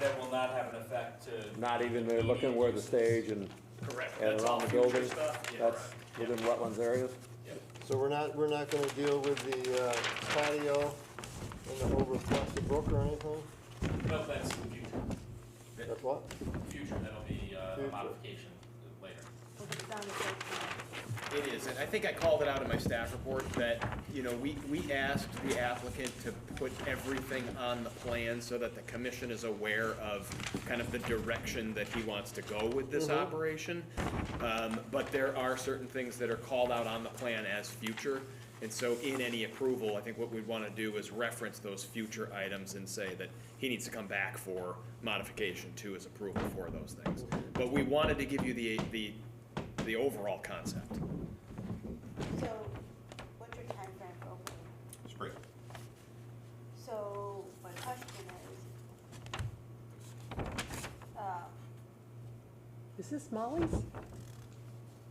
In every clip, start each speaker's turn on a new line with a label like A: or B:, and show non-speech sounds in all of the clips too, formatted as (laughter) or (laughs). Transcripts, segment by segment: A: that will not have an effect to.
B: Not even, they're looking where the stage and,
A: Correct.
B: and
A: That's all
B: around the
A: future
B: building?
A: stuff. Yeah,
B: That's
A: correct.
B: within wetlands areas?
A: Yep.
C: So we're not, we're not gonna deal with the uh, patio and the whole reflective brook or anything?
A: No, that's the future.
C: That's what?
A: Future, that'll be uh, a
C: Future.
A: modification later.
D: it's on the site plan.
E: It is, and I think I called it out in my staff report that, you know, we, we asked the applicant to put everything on the plan so that the commission is aware of kind of the direction that he wants to go with this operation. Um, but there are certain things that are called out on the plan as future. And so in any approval, I think what we'd want to do is reference those future items and say that he needs to come back for modification to his approval for those things. But we wanted to give you the, the, the overall concept.
D: So what's your timeframe for opening?
F: Spring.
D: So my question is, um,
G: Is this Molly's?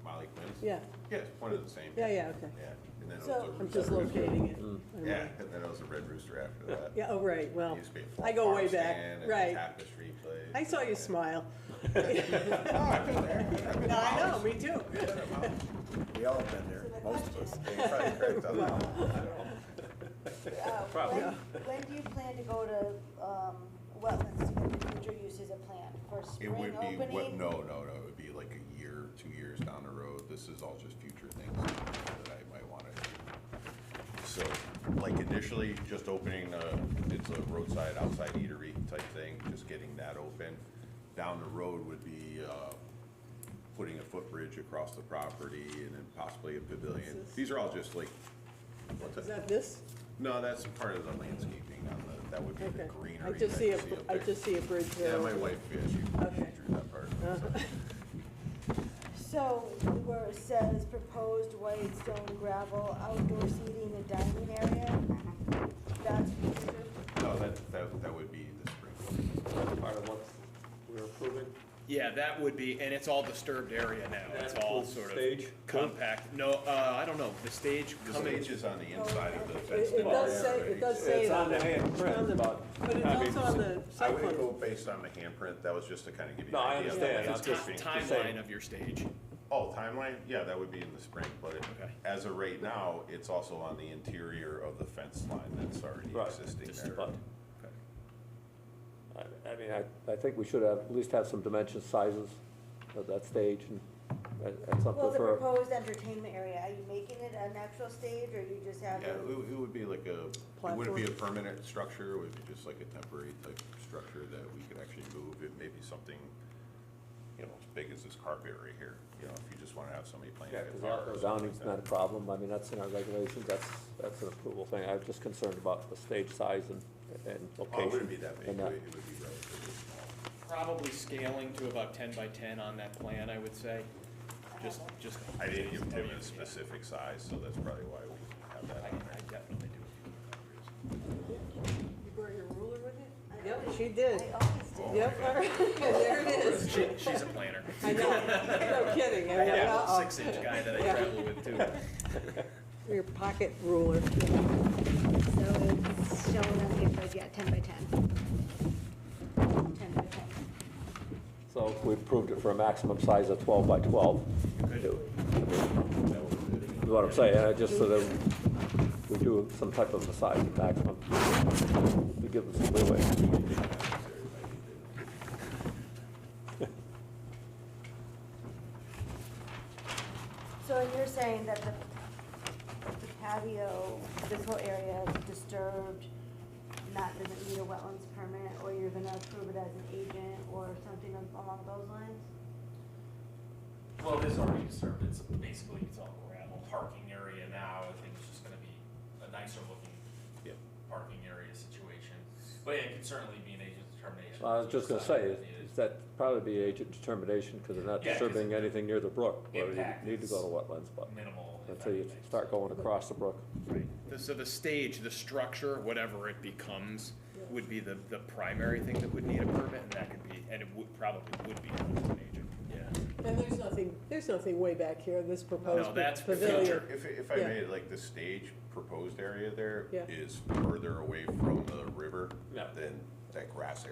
F: Molly Quinn's?
G: Yeah,
F: Yeah, it's one of the same.
G: yeah, yeah, okay.
F: Yeah, and then it was
D: So-
F: a
D: I'm
G: I'm just
F: Red Rooster.
G: locating it. I'm
F: Yeah,
G: like-
F: and then it was a Red Rooster after that.
G: Yeah, oh, right, well,
F: It used to be a
G: I go
F: farm
G: way
F: stand
G: back,
F: and a
G: right.
F: Tapestry place.
G: I saw
F: (laughs)
G: you smile.
F: Oh, I've been there. I've been
G: (laughs) No, I
F: to
G: know,
F: Molly's.
G: me too.
F: We all have been
D: so the
F: there, most of us.
G: (laughs)
D: question
F: Yeah, right, correct. I don't know.
D: is, uh, when, when do you plan to go to um, wetlands to get the future uses a plan? For
F: It
D: spring
F: would be,
D: opening?
F: what, no, no, no, it would be like a year, two years down the road, this is all just future things that I might wanna do. So, like initially, just opening a, it's a roadside outside eatery type thing, just getting that open. Down the road would be, uh, putting a footbridge across the property and then possibly a pavilion.
G: This is-
F: These are all just like, what's
G: Is
F: that?
G: that this?
F: No, that's part of the landscaping on the, that would be the
G: Okay.
F: greenery.
G: I just
F: that
G: see
F: you
G: a,
F: up
G: I
F: there.
G: just see a bridge
F: Yeah,
G: there.
F: my wife, yeah, she,
G: Okay. Uh-huh.
F: she drew that part.
D: So where it says proposed white stone gravel outdoor seating and dining area, that's future?
F: No, that, that, that would be the spring.
H: part of what we're approving.
E: Yeah, that would be, and it's all disturbed area now. It's all
H: includes
E: sort
H: stage?
E: of compact. No, uh, I don't know, the stage
F: The
E: coming,
F: stage is on the inside of the fence.
G: Oh, It it does say, it does say.
H: It's on the
G: that.
H: handprint, but.
G: But it's
H: I mean,
G: also on the
F: I
G: site
F: wouldn't go
G: plan.
F: based on the handprint, that was just to kind of give you.
H: No,
F: an
H: I
F: idea of
H: understand. I'm
F: what it's
H: just-
F: gonna be.
E: timeline of your stage.
F: Oh, timeline, yeah, that would be in the spring, but it-
E: Okay.
F: as of right now, it's also on the interior of the fence line that's already
H: Right,
F: existing
E: just
F: there.
H: But, I- I mean, I,
B: I, I think we should have, at least have some dimensions, sizes of that stage and that- that's
D: Well,
B: something
D: the
B: for,
D: proposed entertainment area, are you making it an actual stage or you just have?
F: Yeah, it
D: it-
F: would it would be like a, it wouldn't be a permanent structure, it would be just like a temporary type structure that we could actually move. It may be something, you know, as big as this carpet right here, you know, if you just want to have somebody playing
B: yeah,
F: a
B: because
F: guitar. or
B: outdoor
F: something
B: zoning's
F: like
B: not a
F: that.
B: problem. I mean, that's in our regulations, that's, that's an approval thing. I'm just concerned about the stage size and, and
F: Oh,
B: location.
F: it wouldn't be that big, it
B: and
F: would it would be relatively small.
E: Probably scaling to about ten by ten on that plan, I would say. Just, just.
F: I didn't give him a specific size, so that's probably why we have
E: I,
F: that on there.
E: I definitely do.
G: You brought your ruler with it? Yep, she did.
D: I always do.
F: Oh,
G: Yep, (laughs) all right, there it is.
E: She, she's a planner.
G: I know, no kidding. I mean,
E: Yeah,
G: uh-uh.
E: six inch guy that I travel with too.
G: Your pocket ruler.
I: So it's shown on the approach, yeah, 10 by 10. 10 by 10.
B: So if we approved it for a maximum size of 12 by 12. it- Is what I'm saying, uh, just so that we do some type of a size maximum, to give them some leeway.
D: So and you're saying that the the patio, this whole area is disturbed, not gonna need a wetlands permit, or you're gonna approve it as an agent or something along those lines?
A: Well, it is already disturbed, it's basically, it's all gravel parking area now, I think it's just gonna be a nicer looking parking area situation. But yeah, it could certainly be an agent determination.
B: I was just gonna say,
A: Decide if it
B: is
A: is.
B: that probably be agent determination, because they're not
A: Yeah, 'cause
B: disturbing anything near the brook, where you
A: impact
B: need to go
A: is
B: to wetlands, but
A: Minimal. if
B: until you
A: anything.
B: start going across the brook.
E: The- So the stage, the structure, whatever it becomes, would be the, the primary thing that would need a permit, and that could be, and it would, probably would be done with an agent, yeah.
G: And there's nothing, there's nothing way back here, this
E: No,
G: proposed
E: that's
G: pavilion.
E: future.
F: If, if I
G: Yeah.
F: made like the stage proposed area there
G: Yeah.
F: is further away from the river
B: Yeah.
F: than that grass area.